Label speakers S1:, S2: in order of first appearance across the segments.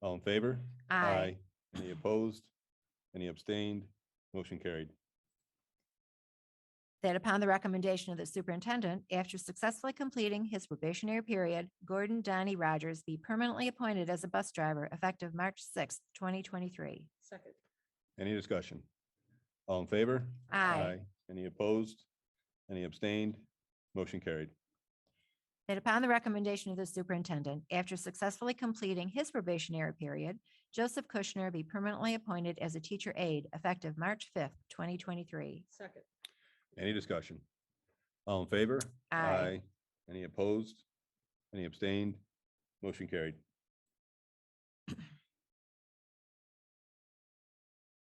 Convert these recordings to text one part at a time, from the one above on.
S1: All in favor?
S2: Aye.
S1: Any opposed? Any abstained? Motion carried.
S2: That upon the recommendation of the superintendent, after successfully completing his probationary period, Gordon Donnie Rogers be permanently appointed as a bus driver effective March sixth, twenty twenty-three.
S3: second,
S1: Any discussion? All in favor?
S2: Aye.
S1: Any opposed? Any abstained? Motion carried.
S2: That upon the recommendation of the superintendent, after successfully completing his probationary period, Joseph Kushner be permanently appointed as a teacher aide effective March fifth, twenty twenty-three.
S3: second,
S1: Any discussion? All in favor?
S2: Aye.
S1: Any opposed? Any abstained? Motion carried.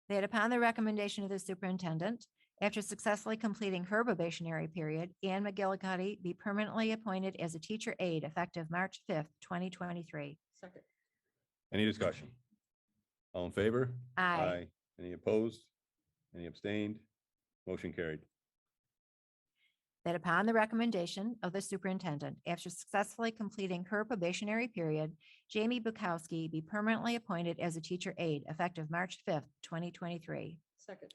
S2: That upon the recommendation of the superintendent, after successfully completing her probationary period, Ann McGillicuddy be permanently appointed as a teacher aide effective March fifth, twenty twenty-three.
S3: second,
S1: Any discussion? All in favor?
S2: Aye.
S1: Any opposed? Any abstained? Motion carried.
S2: That upon the recommendation of the superintendent, after successfully completing her probationary period, Jamie Bukowski be permanently appointed as a teacher aide effective March fifth, twenty twenty-three.
S3: second,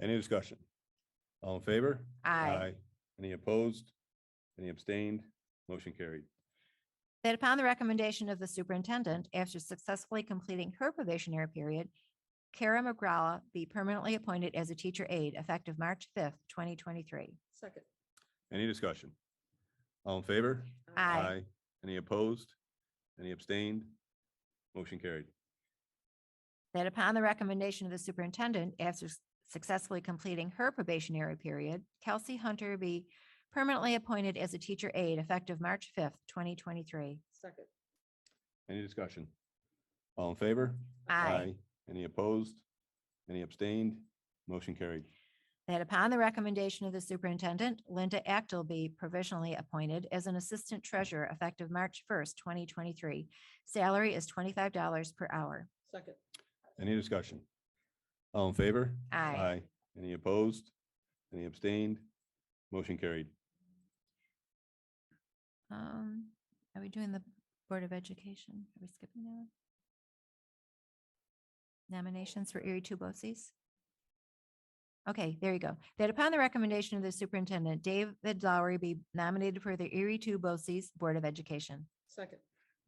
S1: Any discussion? All in favor?
S2: Aye.
S1: Any opposed? Any abstained? Motion carried.
S2: That upon the recommendation of the superintendent, after successfully completing her probationary period, Kara McGraw be permanently appointed as a teacher aide effective March fifth, twenty twenty-three.
S3: second.
S1: Any discussion? All in favor?
S2: Aye.
S1: Any opposed? Any abstained? Motion carried.
S2: That upon the recommendation of the superintendent, after s- successfully completing her probationary period, Kelsey Hunter be permanently appointed as a teacher aide effective March fifth, twenty twenty-three.
S3: Second,
S1: Any discussion? All in favor? Any opposed? Any abstained? Motion carried.
S2: That upon the recommendation of the superintendent, Linda Actel be provisionally appointed as an assistant treasurer effective March first, twenty twenty-three. Salary is twenty-five dollars per hour.
S3: second,
S1: Any discussion? All in favor?
S2: Aye.
S1: Any opposed? Any abstained? Motion carried.
S2: Um, are we doing the Board of Education? Are we skipping that one? Nominations for Erie Tubosis? Okay, there you go. That upon the recommendation of the superintendent, David Lowry be nominated for the Erie Tubosis Board of Education.
S3: second,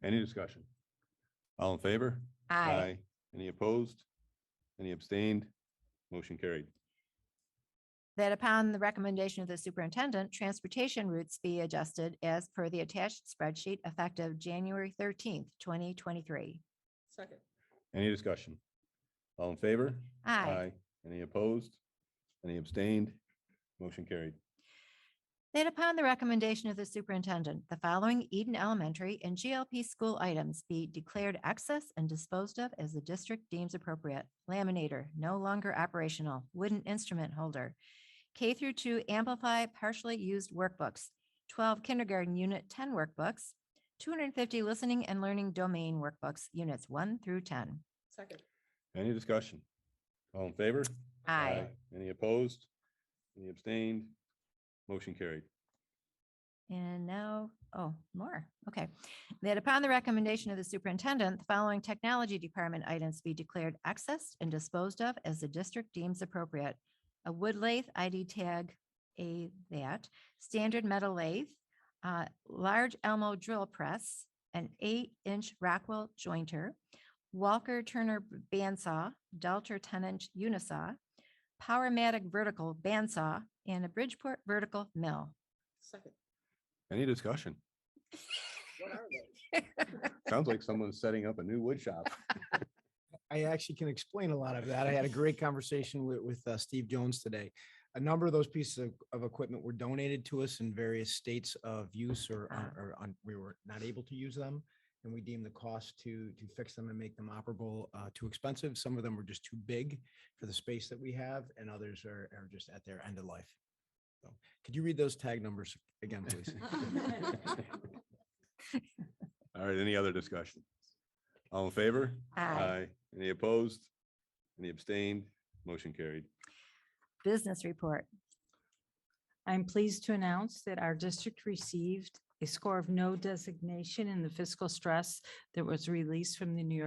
S1: Any discussion? All in favor? Any opposed? Any abstained? Motion carried.
S2: That upon the recommendation of the superintendent, transportation routes be adjusted as per the attached spreadsheet effective January thirteenth, twenty twenty-three.
S3: second,
S1: Any discussion? All in favor?
S2: Aye.
S1: Any opposed? Any abstained? Motion carried.
S2: That upon the recommendation of the superintendent, the following Eden Elementary and GLP school items be declared excess and disposed of as the district deems appropriate. Laminator, no longer operational, wooden instrument holder. K through two amplify partially used workbooks, twelve kindergarten unit ten workbooks, two hundred and fifty listening and learning domain workbooks, units one through ten.
S3: second,
S1: Any discussion? All in favor?
S2: Aye.
S1: Any opposed? Any abstained? Motion carried.
S2: And now, oh, more, okay. That upon the recommendation of the superintendent, the following technology department items be declared accessed and disposed of as the district deems appropriate. A wood lathe ID tag, a that, standard metal lathe, uh, large Elmo drill press, an eight-inch Rockwell jointer, Walker Turner bandsaw, Delta ten-inch unisaw, Powermatic vertical bandsaw, and a Bridgeport vertical mill.
S3: second.
S1: Any discussion?
S3: What are they?
S1: Sounds like someone's setting up a new wood shop.
S4: I actually can explain a lot of that. I had a great conversation with, with uh, Steve Jones today. A number of those pieces of, of equipment were donated to us in various states of use or, or, or un- we were not able to use them. And we deemed the cost to, to fix them and make them operable, uh, too expensive. Some of them were just too big for the space that we have and others are, are just at their end of life. So Could you read those tag numbers again, please?
S1: All right, any other discussion? All in favor? Any opposed? Any abstained? Motion carried.
S2: Business report.
S5: I'm pleased to announce that our district received a score of no designation in the fiscal stress that was released from the New York